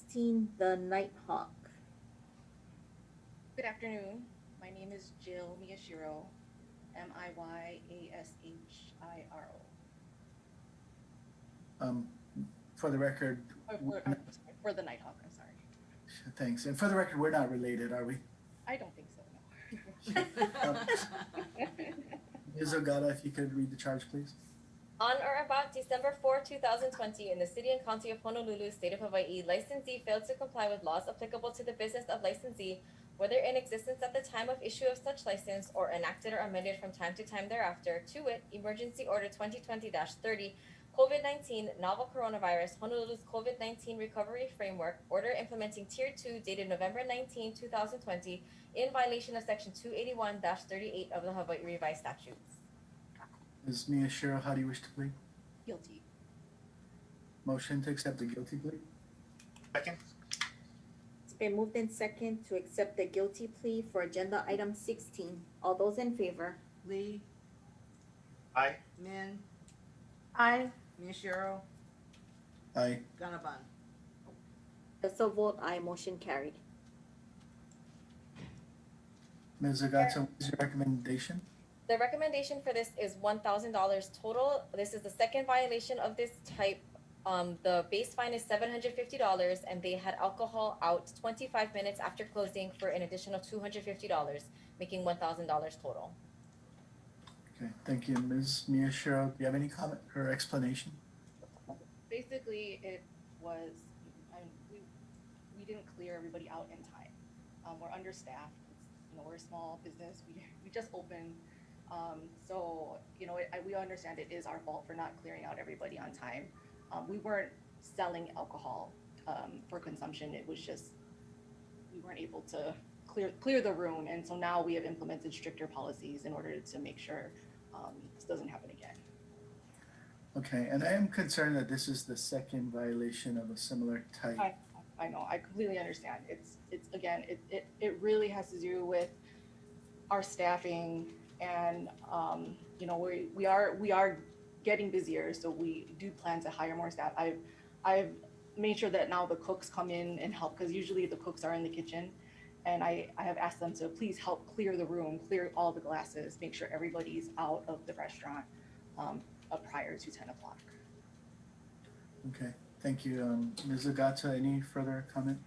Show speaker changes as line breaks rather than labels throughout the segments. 16, The Nighthawk.
Good afternoon. My name is Jill Miyashiro, M I Y A S H I R O.
Um, For the record,
Or Uh, for- I'm sorry, For the Nighthawk, I'm sorry.
thanks. And for the record, we're not related, are we?
I don't think so, no.
Ms. Ogata, if you could read the charge, please.
On or about December 4, 2020, in the City and County of Honolulu, State of Hawaii, licensee failed to comply with laws applicable to the business of licensee, whether in existence at the time of issue of such license or enacted or amended from time to time thereafter, to wit, Emergency Order 2020-30, COVID-19 Novel Coronavirus Honolulu's COVID-19 Recovery Framework, Order Implementing Tier 2 dated November 19, 2020, in violation of Section 281-38 of the Hawaii Revised Statutes.
Ms. Miyashiro, how do you wish to plead?
Guilty.
Motion to accept the guilty plea?
Second?
It's been moved in second to accept the guilty plea for agenda item 16. All those in favor?
Lee,
Aye.
Min,
I,
Miyashiro,
Aye.
Gannabon.
The so vote aye, motion carried.
Ms. Ogata, what is your recommendation?
The recommendation for this is one thousand dollars total. This is the second violation of this type. Um, the base fine is seven hundred fifty dollars and they had alcohol out twenty-five minutes after closing for an additional two hundred fifty dollars, making one thousand dollars total.
Okay, thank you. Ms. Miyashiro, do you have any comment or explanation?
Basically, it was, I mean, we, we didn't clear everybody out in time. Um, we're understaffed, you know, we're a small business, we, we just opened. Um, so, you know, I, we understand it is our fault for not clearing out everybody on time. Um, we weren't selling alcohol, um, for consumption, it was just, we weren't able to clear, clear the room. And so now we have implemented stricter policies in order to make sure, um, this doesn't happen again.
Okay, and I am concerned that this is the second violation of a similar type.
I, I know, I completely understand. It's, it's, again, it, it, it really has to do with our staffing and, um, you know, we, we are, we are getting busier, so we do plan to hire more staff. I've, I've made sure that now the cooks come in and help, because usually the cooks are in the kitchen. And I, I have asked them to please help clear the room, clear all the glasses, make sure everybody's out of the restaurant, um, uh, prior to ten o'clock.
Okay, thank you. Um, Ms. Ogata, any further comment?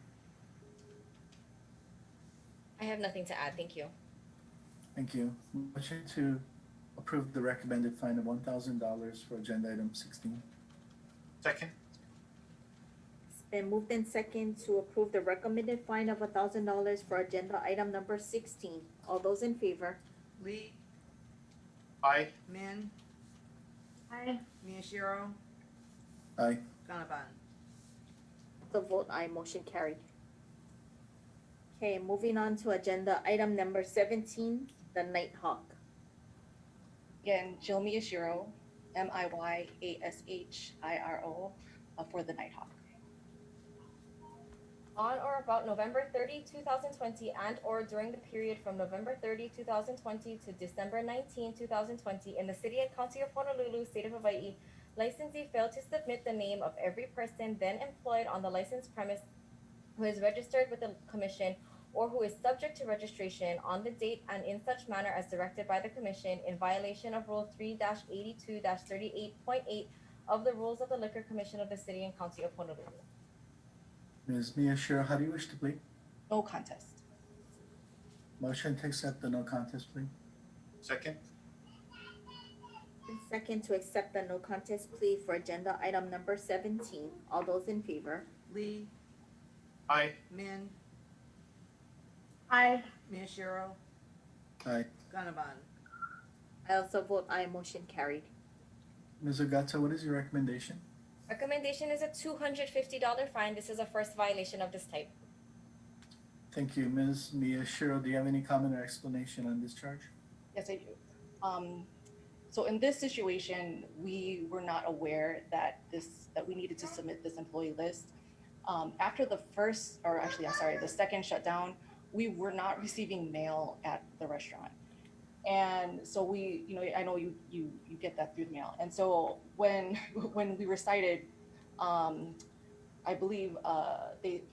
I have nothing to add, thank you.
Thank you. Motion to approve the recommended fine of one thousand dollars for agenda item sixteen.
Second?
It's been moved in second to approve the recommended fine of $1,000 for agenda item number 16. All those in favor?
Lee,
Aye.
Min,
I,
Miyashiro.
Aye.
Gannabon.
The vote aye, motion carried. Okay, moving on to agenda item number seventeen, the Nighthawk.
Again, Jill Miyashiro, M I Y A S H I R O, uh, for the Nighthawk.
On or about November 30, 2020, and/or during the period from November 30, 2020 to December 19, 2020, in the City and County of Honolulu, State of Hawaii, licensee failed to submit the name of every person then employed on the licensed premise who is registered with the Commission or who is subject to registration on the date and in such manner as directed by the Commission in violation of Rule 3-82-38.8 of the Rules of the Liquor Commission of the City and County of Honolulu.
Ms. Miyashiro, how do you wish to plead?
No contest.
Motion to accept the no contest plea.
Second?
And Second to accept the no contest plea for agenda item number seventeen. All those in favor?
Lee,
Aye.
Min,
I,
Miyashiro,
Aye.
Gannabon.
I also vote aye, motion carried.
Ms. Ogata, what is your recommendation?
Recommendation is a two hundred fifty dollar fine. This is a first violation of this type.
Thank you. Ms. Miyashiro, do you have any comment or explanation on this charge?
Yes, I do. Um, so in this situation, we were not aware that this, that we needed to submit this employee list. Um, after the first, or actually, I'm sorry, the second shutdown, we were not receiving mail at the restaurant. And so we, you know, I know you, you, you get that through the mail. And so when, when we were cited, um, I believe, uh, they,